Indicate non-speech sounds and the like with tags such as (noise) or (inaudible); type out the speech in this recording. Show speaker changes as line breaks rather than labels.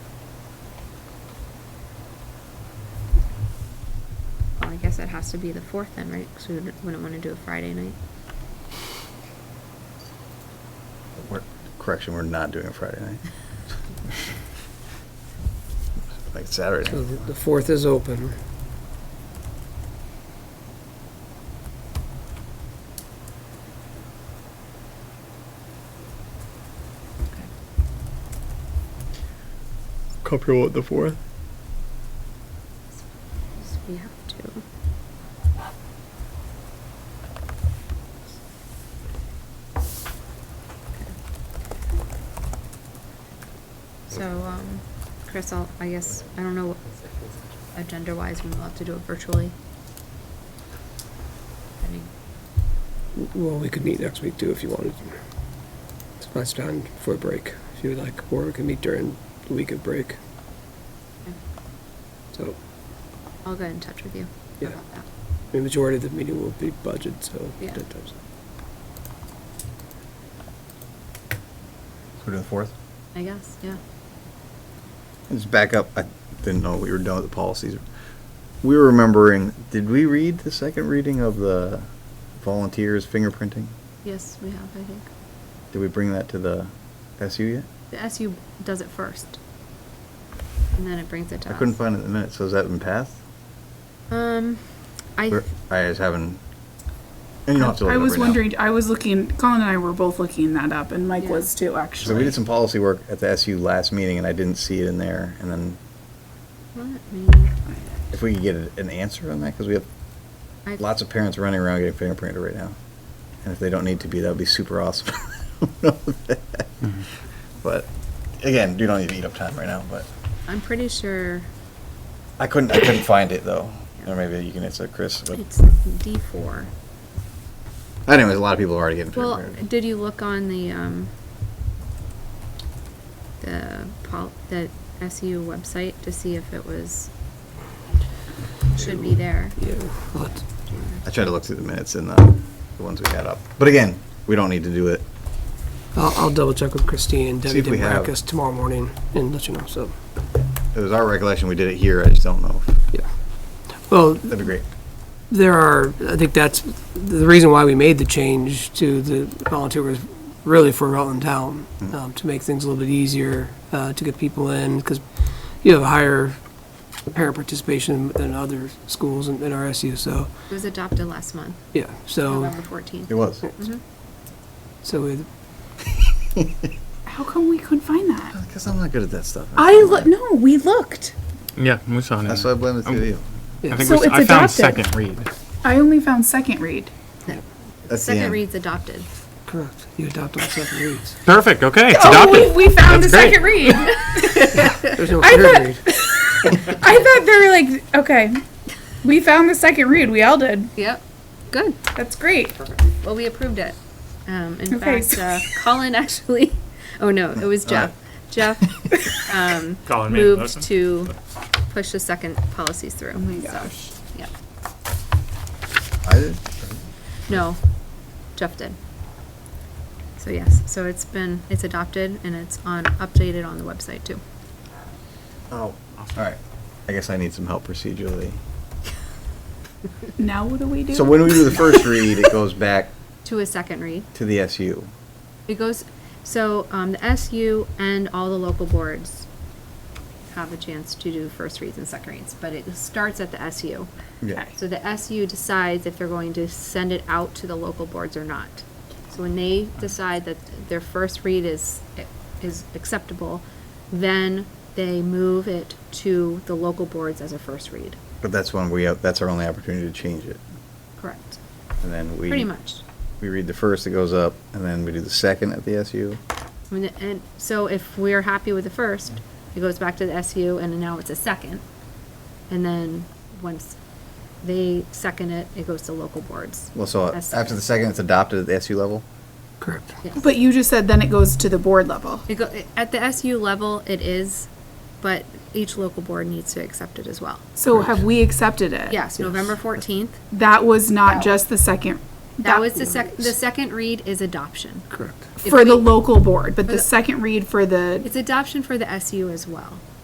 guess it has to be the fourth then, right? Because we wouldn't- wouldn't want to do a Friday night.
We're, correction, we're not doing Friday (laughs) night. Like Saturday
So
night.
the the fourth is open.
Comfortable with the fourth?
So we have to. So, um, Chris, I'll, I guess, I don't know, what agenda wise, we'll have to do it virtually. I mean,
W- Well, we could meet next week too if you wanted. It's much time for a break, if you would like, or we can meet during the week of break. So,
I'll get in touch with you
Yeah.
about that.
the majority of the meeting will be budget, so.
Yeah.
that does-
So we're doing the fourth?
I guess, yeah.
Just back up, I didn't know we were done with the policies. We were remembering, did we read the second reading of the volunteers fingerprinting?
Yes, we have, I think.
Did we bring that to the SU yet?
The SU does it first. And then it brings it to
I
us.
couldn't find it in the minutes, so has that been passed?
Um, I.
Or- I just haven't, and you don't have to look it
I
up
was
right now.
wondering. I was looking. Colin and I were both looking that up, and Mike
Yeah.
was too. Actually,
So we did some policy work at the SU last meeting and I didn't see it in there. And then
Let me find it.
if we could get an answer on that, because we have
I-
lots of parents running around getting fingerprinted right now. And if they don't need to be, that would be super awesome. (laughs) I don't know that. Mm-hmm. But again, you don't need to eat up time right now, but
I'm pretty sure
I couldn't, I couldn't find it though.
Yeah.
Or maybe you can answer Chris, but
it's D4.
anyways, a lot of people are already getting
Well,
fingerprinted.
did you look on the, um, the pol, the SU website to see if it was, should be there?
Yeah, we'll have to-
I tried to look through the minutes and the, the ones we got up. But again, we don't need to do it.
I'll, I'll double check with Christine and
See
Debbie
if we
did
have-
us tomorrow morning and let you know, so,
It was our recollection, we did it here, I just don't know.
Mm-hmm.
if-
yeah. Well,
That'd be great.
there are, I think that's, the reason why we made the change to the volunteer was really for Rutland Town, um, to make things a little bit easier, uh, to get people in, because you have a higher parent participation than other schools in, in RSU, so,
It was adopted last month,
yeah, so,
November 14th.
It was.
Mm-hmm.
so we,
How come we couldn't find that?
Because I'm not good at that stuff.
I look. No, we looked.
Yeah, we saw it. in
That's why
there.
I blame it to you.
I think
So
we, s-
it's
I found
adopted.
second read.
I only found second read.
That's the
Second
end.
read's adopted.
correct, you adopt on second
(laughs)
reads.
Perfect, okay, it's
Oh,
adopted.
we, we found
That's
the
great.
second
(laughs)
read. (laughs)
There's no
I
third
thought-
read.
I thought they were like, okay, we found the second read. We all did.
Yep, good.
That's great.
Well, we approved it. Um, in
Okay.
fact, (laughs) uh, Colin actually, oh no, it was Jeff. Jeff
(laughs)
um,
Colin made the
moved
motion.
to push the second policies through. Oh my gosh. Yeah.
I did.
No, Jeff did. So yes, so it's been, it's adopted and it's on, updated on the website too.
Oh, all right. I guess I need some help procedurally.
Now what do we do?
So when we
(laughs)
do the first read, it goes back
To a second read.
to the SU.
It goes, so, um, the SU and all the local boards have a chance to do first reads and second reads, but it starts at the SU.
Yeah.
So the SU decides if they're going to send it out to the local boards or not. So when they decide that their first read is, is acceptable, then they move it to the local boards as a first read.
But that's when we, uh, that's our only opportunity to change it.
Correct.
And then we.
Pretty much.
We read the first, it goes up, and then we do the second at the SU.
I mean, and so if we're happy with the first, it goes back to the SU and now it's a second. And then once they second it, it goes to local boards.
Well, so
That's
after the second, it's adopted at the SU level?
Correct.
but you just said then it goes to the board level.
It go, at the SU level, it is, but each local board needs to accept it as well.
So have we accepted it?
Yes, November fourteenth.
That was not just the second.
That was the sec, the second read is adoption.
Correct.
If
for the
we-
local board, but
the-
the second read for the
It's adoption for the SU as well.